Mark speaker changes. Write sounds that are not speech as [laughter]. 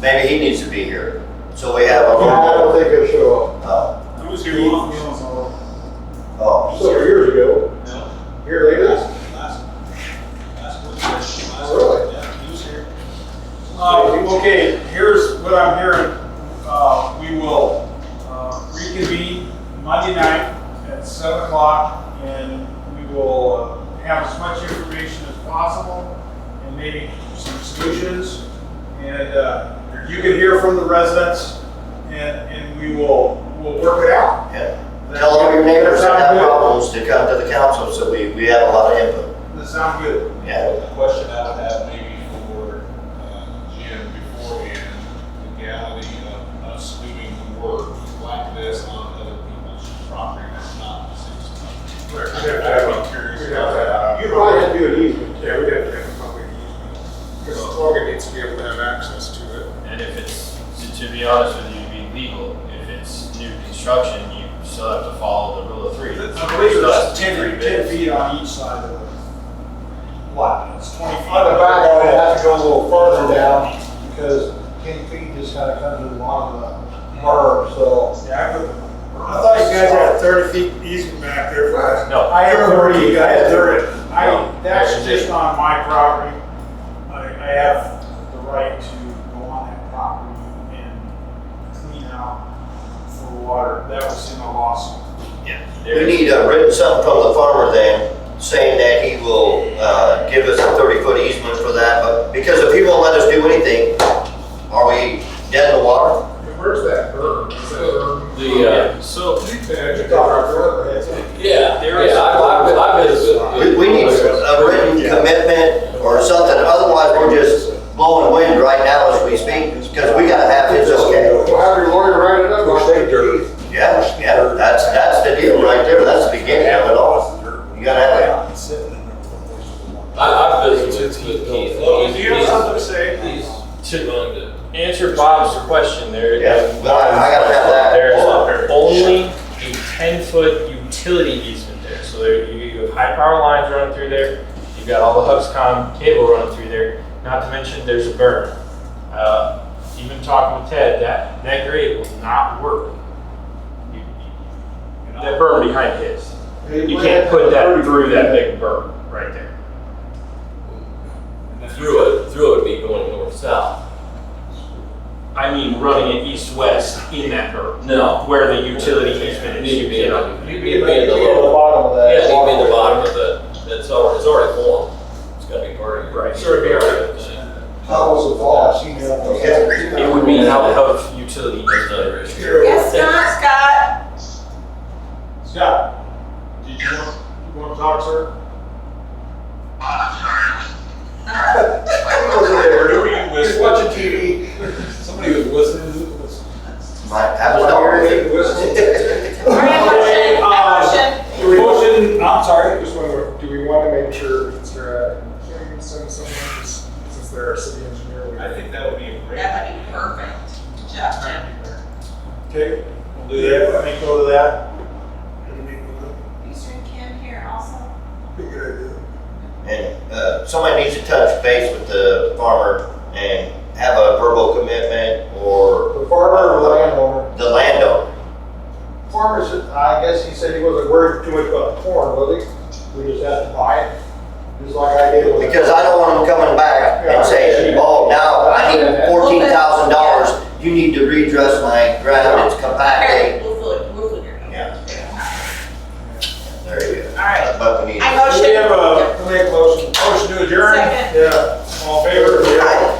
Speaker 1: Maybe he needs to be here. So we have a
Speaker 2: No, I don't
Speaker 1: roll
Speaker 2: think he'll show up.
Speaker 1: call.
Speaker 3: Who was here long?
Speaker 1: Oh, oh.
Speaker 2: Several years ago,
Speaker 3: No,
Speaker 2: here lately.
Speaker 3: last, last one, last one.
Speaker 2: Really?
Speaker 3: Yeah, he was here. Uh, okay, here's what I'm hearing. Uh, we will, uh, reconvene Monday night at seven o'clock and we will uh, have as much information as possible and maybe some solutions. And, uh, you can hear from the residents and, and we will, we'll work it out.
Speaker 1: Yeah. Tell all your neighbors that have problems to come to the council, so we, we have a lot of input.
Speaker 3: That sound good?
Speaker 1: Yeah.
Speaker 4: The question I would have maybe for uh, Jim beforehand, the legality of us doing work like this on other people's property that's not the city's property. I'm curious about that.
Speaker 2: You probably have to do an easement.
Speaker 5: Yeah, we have to have a public easement. Because the logger needs to be able to have access to it.
Speaker 6: And if it's, to- to be honest with you, to be legal, if it's new construction, you still have to follow the rule of three.
Speaker 3: I believe
Speaker 6: Still has
Speaker 3: it's
Speaker 6: to be three
Speaker 3: 10, 10
Speaker 6: bids.
Speaker 3: feet on each side of the lot, it's 20
Speaker 2: On
Speaker 3: feet.
Speaker 2: the back, I would have to go a little further down because ten feet just kind of comes to the bottom of the berm, so.
Speaker 3: Yeah, I put
Speaker 5: I thought you guys had thirty feet easement back there for us.
Speaker 6: No,
Speaker 3: I have 30, I have 30.
Speaker 6: No.
Speaker 3: I, that's just on my property. I, I have the right to go on that property and clean out for water. That was in the lawsuit.
Speaker 1: We
Speaker 6: there's,
Speaker 1: need a written something from the farmer then, saying that he will, uh, give us a thirty-foot easement for that, but because if he won't let us do anything, are we dead in the water?
Speaker 5: And where's that berm? Is that berm?
Speaker 7: The, uh, so,
Speaker 5: Yeah, you got our front, that's it.
Speaker 7: yeah, yeah, I- I've, been- I've been.
Speaker 1: We, we need a written commitment or something, otherwise we're just blowing wind right now as we speak, because we gotta have his okay.
Speaker 2: We'll have your lawyer write it up. We'll take dirt.
Speaker 1: Yeah, yeah, that's, that's the deal right there, that's the beginning of it all. You gotta have it.
Speaker 7: I, I've visited with with Keith. and
Speaker 3: Do you have
Speaker 7: he's-
Speaker 3: something to say?
Speaker 7: he's- he's willing to Answer Bob's question there.
Speaker 1: Yeah, well, I- I gotta have that.
Speaker 7: There's only a ten-foot utility easement there, so there, you, you have high power lines running through there, you've got all the Huxcom cable running through there, not to mention there's a burn. Uh, even talking with Ted, that, that grade will not work. You- you- That burn behind his. You can't put that through that big berm right there.
Speaker 6: through it, through it would be going north-south.
Speaker 7: I mean, running it east-west in that berm,
Speaker 6: No.
Speaker 7: where the utility easement is.
Speaker 6: Need to be in,
Speaker 7: Yeah.
Speaker 6: you need to be in the lower,
Speaker 2: bottom of
Speaker 6: yeah,
Speaker 2: that.
Speaker 6: you need to be in the bottom of the, that's already, it's already formed. It's gotta be part of.
Speaker 7: Right.
Speaker 6: Sure, be alright.
Speaker 2: How was the fall? I've seen it. up there.
Speaker 7: It would be out of utility easement.
Speaker 8: Yes, Scott, Scott.
Speaker 3: Scott, did you want, you want to talk, sir?
Speaker 4: Who are you
Speaker 5: Just
Speaker 4: with?
Speaker 5: watching TV.
Speaker 4: Somebody was listening.
Speaker 1: Might have a
Speaker 5: Hear
Speaker 1: dog.
Speaker 5: anything, listen.
Speaker 8: All right, motion,
Speaker 3: Uh,
Speaker 8: motion.
Speaker 3: Motion, I'm sorry.
Speaker 5: Just wonder, do we want to make sure that there, can we send someone, who's- since they're our city engineer? we-
Speaker 4: I think that would be a great.
Speaker 8: That would be perfect. Good job, Jim.
Speaker 3: Okay, we'll do that. Let me go to that.
Speaker 8: Eastern Kim here also.
Speaker 5: Be a good idea.
Speaker 1: [laughs] And uh, somebody needs to touch base with the farmer and have a verbal commitment or
Speaker 2: The farmer or the landowner?
Speaker 1: the landowner.
Speaker 2: Farmer said, I guess he said he wasn't worried too much about the corn, was he? We just had to buy it, just like I did with.
Speaker 1: Because I don't want them coming back and saying, oh, now I need fourteen thousand dollars. You need to redress my ground, it's compacted.
Speaker 8: Okay, we'll figure, we'll figure it out.
Speaker 1: Yeah. There you go.
Speaker 8: All right.
Speaker 1: But we need.
Speaker 8: I
Speaker 3: We have
Speaker 8: motion.
Speaker 3: a, we make a motion, motion to adjourn.
Speaker 8: Second.
Speaker 3: Yeah, all in favor?
Speaker 1: Aye.